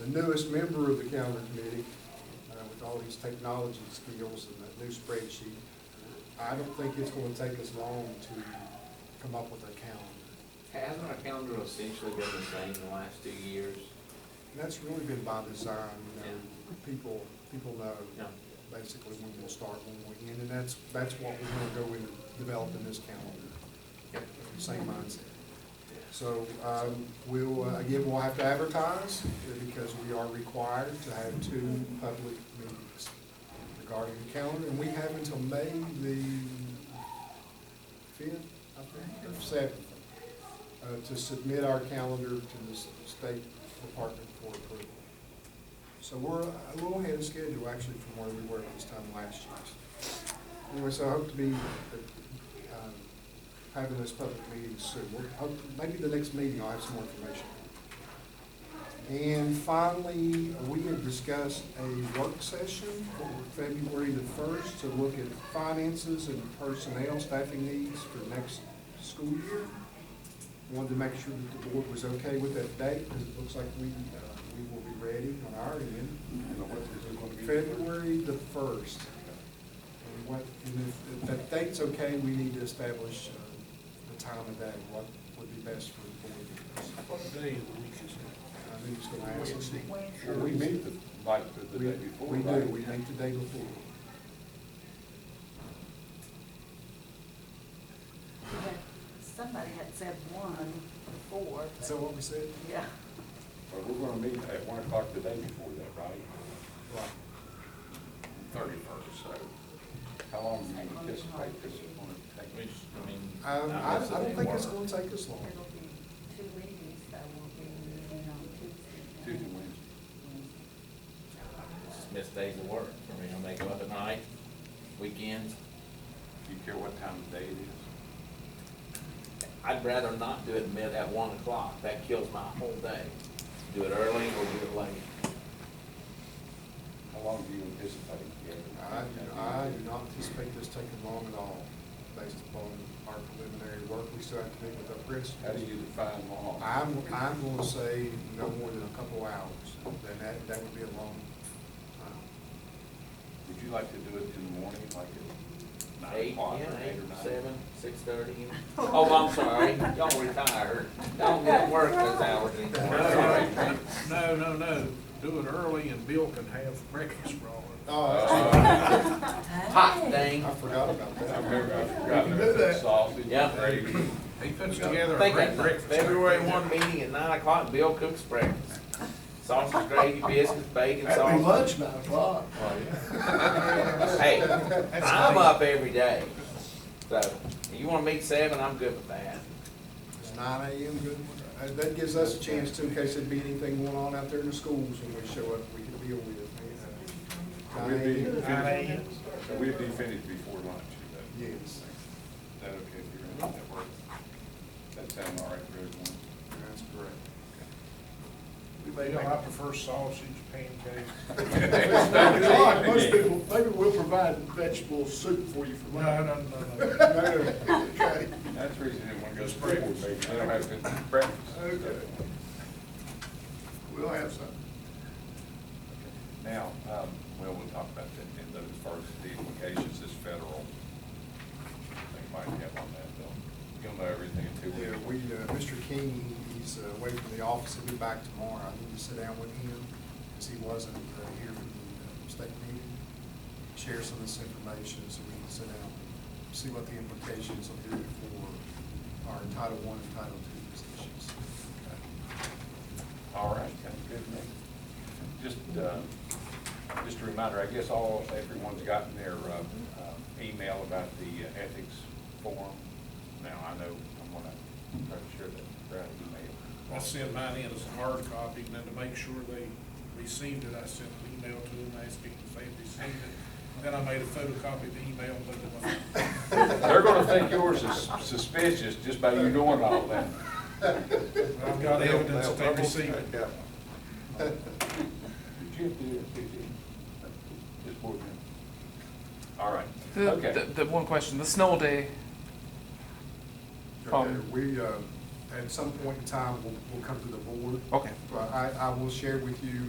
the newest member of the calendar committee, uh, with all these technology skills and that new spreadsheet, I don't think it's gonna take us long to come up with a calendar. Hasn't our calendar essentially been the same the last two years? And that's really been by design, you know, people, people know No. basically when we'll start, when we end, and that's, that's what we're gonna go into developing this calendar, Yep. same mindset. So um, we'll, uh, again, we'll have to advertise uh, because we are required to have two public meetings regarding the calendar. And we have until May the fifth, I think, or seventh, uh, to submit our calendar to the s- State Department for approval. So we're a little ahead of schedule actually from where we were this time last year. Anyway, so I hope to be um, having this public meeting soon. We'll- hope- Maybe the next meeting I'll have some more information. And finally, we have discussed a work session for February the first to look at finances and personnel staffing needs for next school year. Wanted to make sure that the board was okay with that date because it looks like we, uh, we will be ready on our end. February the first. And what, and if, if that date's okay, we need to establish uh, the time of day, what would be best for the board members. What day of the week is I think it's gonna ask us. Wednesday. Well, we meet the, like, the the We- day before, We right? do, we meet the day before. Yeah, Somebody had said one before. but- Is that what we said? Yeah. Well, we're gonna meet at one o'clock the day before that, right? Right. Thirty-first, so how long do you anticipate this is gonna take? Which, I mean. Um, I, I obviously don't they think it's were. gonna take us long. It'll be two meetings that will be meeting on Tuesday. Tuesday, Wednesday. It's just Missed days of work. I mean, I make up at night, weekends. Do you care what time of day it is? I'd rather not do it mid at one o'clock. That kills my whole day. Do it early or do it late. How long do you anticipate? I, do- I do not anticipate this taking long at all, based upon our preliminary work. We still have to meet with our principals. How do you define long? I'm, I'm gonna say no more than a couple hours, then that, that would be a long time. Would you like to do it in the morning, like at nine Eight, o'clock yeah, or eight eight, or nine? seven, six thirty. Oh, I'm sorry. Y'all retired. Y'all didn't work those hours anymore. Sorry. No, no, no, no, do it early and Bill can have breakfast for all of us. Uh, Hot dang. Oh, I forgot about I that. remember, I forgot, You can do there's that. sausage, Yeah. gravy. He puts together a Think great that breakfast. February one meeting at nine o'clock, Bill cooks breakfast. Sausage, gravy, biscuits, That'd bacon, be sausage. lunch, nine o'clock. Oh, Hey, I'm up every day. So, you wanna meet seven, I'm good with that. It's nine AM, good, Uh, that gives us a chance to, in case there'd be anything going on out there in the schools when we show up, we can deal with it. uh, We'd be 9 a.m. finished, we'd be finished before lunch, you know. Yes. Is that okay if you're in that work? That sound all right for everyone? That's correct. You know, I prefer sausage, pancakes. It's nine o'clock, most people, maybe we'll provide vegetable soup for you for No, lunch. no, no, no. Okay. That's the reason everyone goes to breakfast, they don't have to eat breakfast. Okay. We'll have some. Now, um, well, we'll talk about that in those first, the implications is federal. They might have on that, though. You'll know everything in two Yeah, weeks. we, uh, Mr. King, he's uh, away from the office, he'll be back tomorrow, I need to sit down with him, because he wasn't uh, here for the uh, state meeting, share some of this information, so we can sit down, and see what the implications will be for our Title I and Title II positions. All right, that's good, Nick. Just, uh, just a reminder, I guess all, everyone's gotten their uh, uh, email about the uh, ethics forum. Now, I know, I'm gonna, I'm sure that Brad emailed. I sent mine in as a hard copy, and then to make sure they received it, I sent an email to them asking if they had received it. Then I made a photocopy of the email, but it wasn't. They're gonna think yours is suspicious just by you doing all that. I've got evidence that they received it. Did you do it, did you? This board member? All right, okay. The, the, the one question, the snow day. Okay, Um, we, uh, at some point in time, we'll, we'll come to the board. Okay. But I, I will share with you